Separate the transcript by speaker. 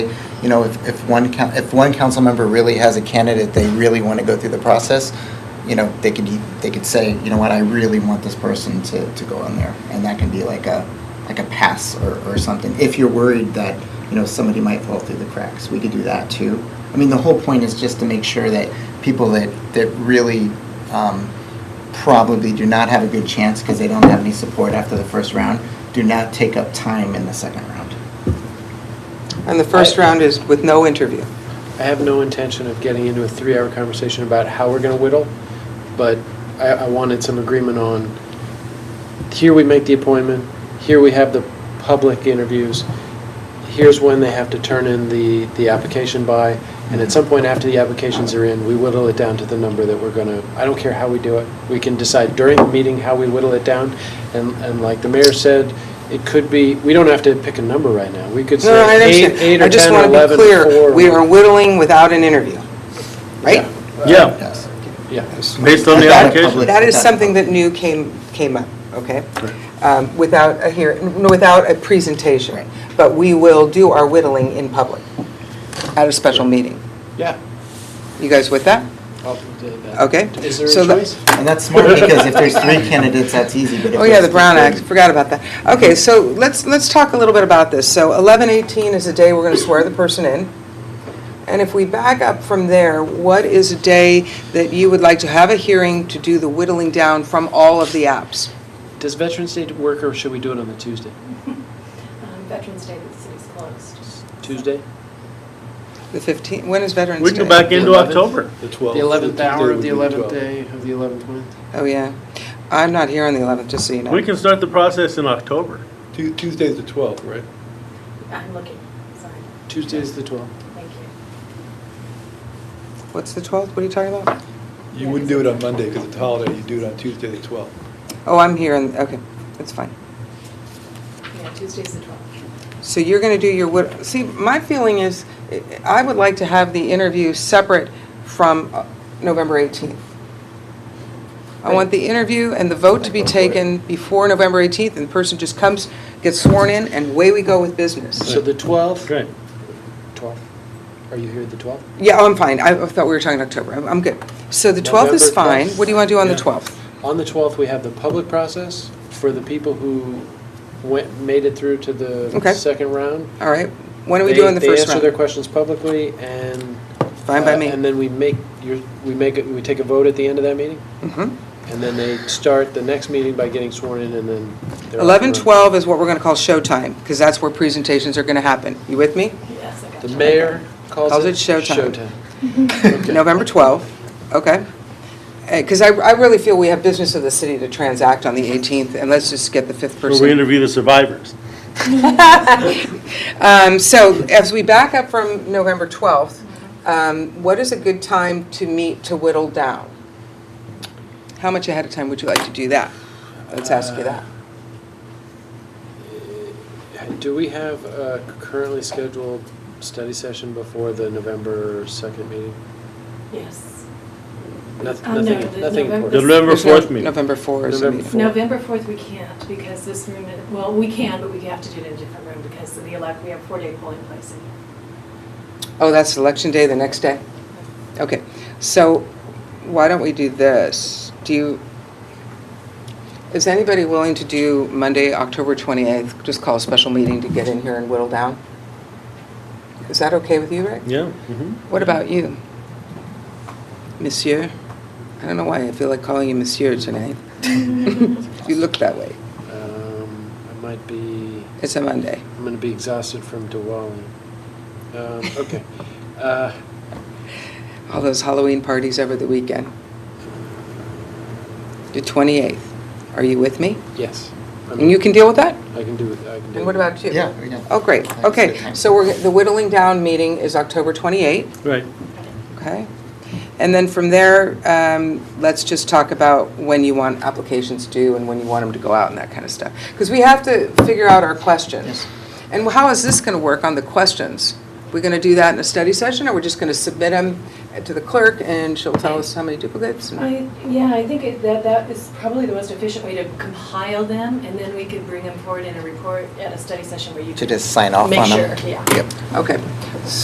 Speaker 1: you know, if, if one, coun- if one council member really has a candidate, they really want to go through the process, you know, they could, e- they could say, you know what, I really want this person to, to go on there. And that can be like a, like a pass or, or something. If you're worried that, you know, somebody might fall through the cracks, we could do that too. I mean, the whole point is just to make sure that people that, that really, um, probably do not have a good chance because they don't have any support after the first round, do not take up time in the second round.
Speaker 2: And the first
Speaker 3: I-
Speaker 2: round is with no interview.
Speaker 3: I have no intention of getting into a three-hour conversation about how we're going to whittle, but I, I wanted some agreement on, here we make the appointment, here we have the public interviews, here's when they have to turn in the, the application by, and at some point after the applications are in, we whittle it down to the number that we're going to, I don't care how we do it. We can decide during the meeting how we whittle it down, and, and like the mayor said, it could be, we don't have to pick a number right now. We could
Speaker 2: No, I
Speaker 3: say
Speaker 2: understand.
Speaker 3: eight, eight or
Speaker 2: I just
Speaker 3: 10 or
Speaker 2: want to be
Speaker 3: 11 or
Speaker 2: clear,
Speaker 3: four.
Speaker 2: we are whittling without an interview, right?
Speaker 4: Yeah,
Speaker 1: Yes.
Speaker 3: Yeah.
Speaker 4: based on the
Speaker 1: Without a
Speaker 4: application.
Speaker 1: public-
Speaker 2: That is something that new came, came up, okay? Um, Without a hear, no, without a presentation. But we will do our whittling in public at a special meeting.
Speaker 3: Yeah.
Speaker 2: You guys with that? Okay.
Speaker 3: Is there
Speaker 2: So
Speaker 3: a
Speaker 2: the-
Speaker 3: choice?
Speaker 1: And that's smart because if there's three candidates, that's easy, but if
Speaker 2: Oh, yeah,
Speaker 1: there's
Speaker 2: the Brown Act,
Speaker 1: 15,
Speaker 2: forgot about that. Okay, so let's, let's talk a little bit about this. So 11:18 is the day we're going to swear the person in. And if we back up from there, what is a day that you would like to have a hearing to do the whittling down from all of the apps?
Speaker 3: Does Veterans Day work, or should we do it on the Tuesday?
Speaker 5: Um, Veterans Day, the city's closed.
Speaker 3: Tuesday?
Speaker 2: The 15, when is Veterans Day?
Speaker 4: We can go back into October.
Speaker 6: The
Speaker 3: The
Speaker 6: 12th.
Speaker 3: 11th hour of the 11th
Speaker 6: day.
Speaker 3: day of the 11th month?
Speaker 2: Oh, yeah. I'm not here on the 11th, just so you know.
Speaker 4: We can start the process in October.
Speaker 6: Tu- Tuesday's the 12th, right?
Speaker 5: I'm looking, sorry,
Speaker 3: Tuesday is the 12th.
Speaker 5: thank you.
Speaker 2: What's the 12th? What are you talking about?
Speaker 6: You wouldn't do it on Monday because it's a holiday, you do it on Tuesday, the 12th.
Speaker 2: Oh, I'm here, on okay, that's fine.
Speaker 5: Yeah, Tuesday's the 12th.
Speaker 2: So you're going to do your, wit- see, my feeling is, eh, I would like to have the interview separate from uh, November 18th. I want the interview and the vote to be taken before November 18th, and the person just comes, gets sworn in, and away we go with business.
Speaker 3: So the 12th?
Speaker 4: Great.
Speaker 3: 12th. Are you here the 12th?
Speaker 2: Yeah, oh, I'm fine, I I thought we were talking October, I'm- I'm good. So the 12th is
Speaker 3: November
Speaker 2: fine,
Speaker 3: 12th.
Speaker 2: what do you want to do on the
Speaker 3: Yeah.
Speaker 2: 12th?
Speaker 3: On the 12th, we have the public process for the people who went, made it through to
Speaker 2: Okay.
Speaker 3: the second round.
Speaker 2: All right, when do we
Speaker 3: They-
Speaker 2: do on the first
Speaker 3: They answer their
Speaker 2: round?
Speaker 3: questions publicly, and...
Speaker 2: Fine by
Speaker 3: uh,
Speaker 2: me.
Speaker 3: And then we make, your- we make, it- we take a vote at the end of that meeting?
Speaker 2: Mhm.
Speaker 3: And then they start the next meeting by getting sworn in and then. they're off
Speaker 2: 11,
Speaker 3: and running.
Speaker 2: 12 is what we're going to call showtime, because that's where presentations are going to happen. You with me?
Speaker 5: Yes, I got you.
Speaker 3: The mayor calls it.
Speaker 2: Calls it showtime.
Speaker 3: Showtime. Okay.
Speaker 2: November 12th, okay. Because I, I really feel we have business of the city to transact on the 18th, and let's just get the fifth
Speaker 4: Where we
Speaker 2: person.
Speaker 4: interview the survivors.
Speaker 2: Um, So as we back up from November 12th, um, what is a good time to meet to whittle down? How much ahead of time would you like to do that? Let's ask you that.
Speaker 3: Uh, Do we have a currently scheduled study session before the November 2nd meeting?
Speaker 5: Yes.
Speaker 3: Noth-
Speaker 5: Uh, no,
Speaker 3: Nothing,
Speaker 5: the
Speaker 3: nothing
Speaker 5: November-
Speaker 4: The
Speaker 3: important.
Speaker 4: November
Speaker 2: There's no-
Speaker 4: 4th meeting.
Speaker 2: November 4 is the
Speaker 3: November
Speaker 2: meeting.
Speaker 3: Four.
Speaker 5: November 4th, we can't because this room, is- well, we can, but we have to do it in a different room because of the elect, we have four-day polling place in here.
Speaker 2: Oh, that's election day the next day? Okay, so why don't we do this? Do you, is anybody willing to do Monday, October 28th? Just call a special meeting to get in here and whittle down? Is that okay with you, Rick?
Speaker 4: Yeah. mhm.
Speaker 2: What about you? Monsieur? I don't know why I feel like calling you monsieur tonight. You look that way.
Speaker 3: Um, I might be,
Speaker 2: It's a Monday.
Speaker 3: I'm going to be exhausted from Diwali. Um, Okay. Uh,
Speaker 2: All those Halloween parties over the weekend. The 28th. Are you with me?
Speaker 3: Yes. I'm-
Speaker 2: And you can deal with that?
Speaker 3: I can do it, I can do it.
Speaker 2: And what about you?
Speaker 1: Yeah, yeah.
Speaker 2: Oh, great.
Speaker 1: That's a good
Speaker 2: Okay,
Speaker 1: time.
Speaker 2: so we're, the whittling down meeting is October 28,
Speaker 4: Right.
Speaker 2: okay? And then from there, um, let's just talk about when you want applications due and when you want them to go out and that kind of stuff. Because we have to figure out our questions.
Speaker 1: Yes.
Speaker 2: And how is this going to work on the questions? We're going to do that in a study session, or we're just going to submit them to the clerk, and she'll tell us how many duplicates. and-
Speaker 5: I, yeah, I think it- that that is probably the most efficient way to compile them, and then we could bring them forward in a report at a study session where you
Speaker 1: to
Speaker 5: could
Speaker 1: just sign off
Speaker 5: make
Speaker 1: on them.
Speaker 5: sure, yeah.
Speaker 1: Yep.
Speaker 2: Okay,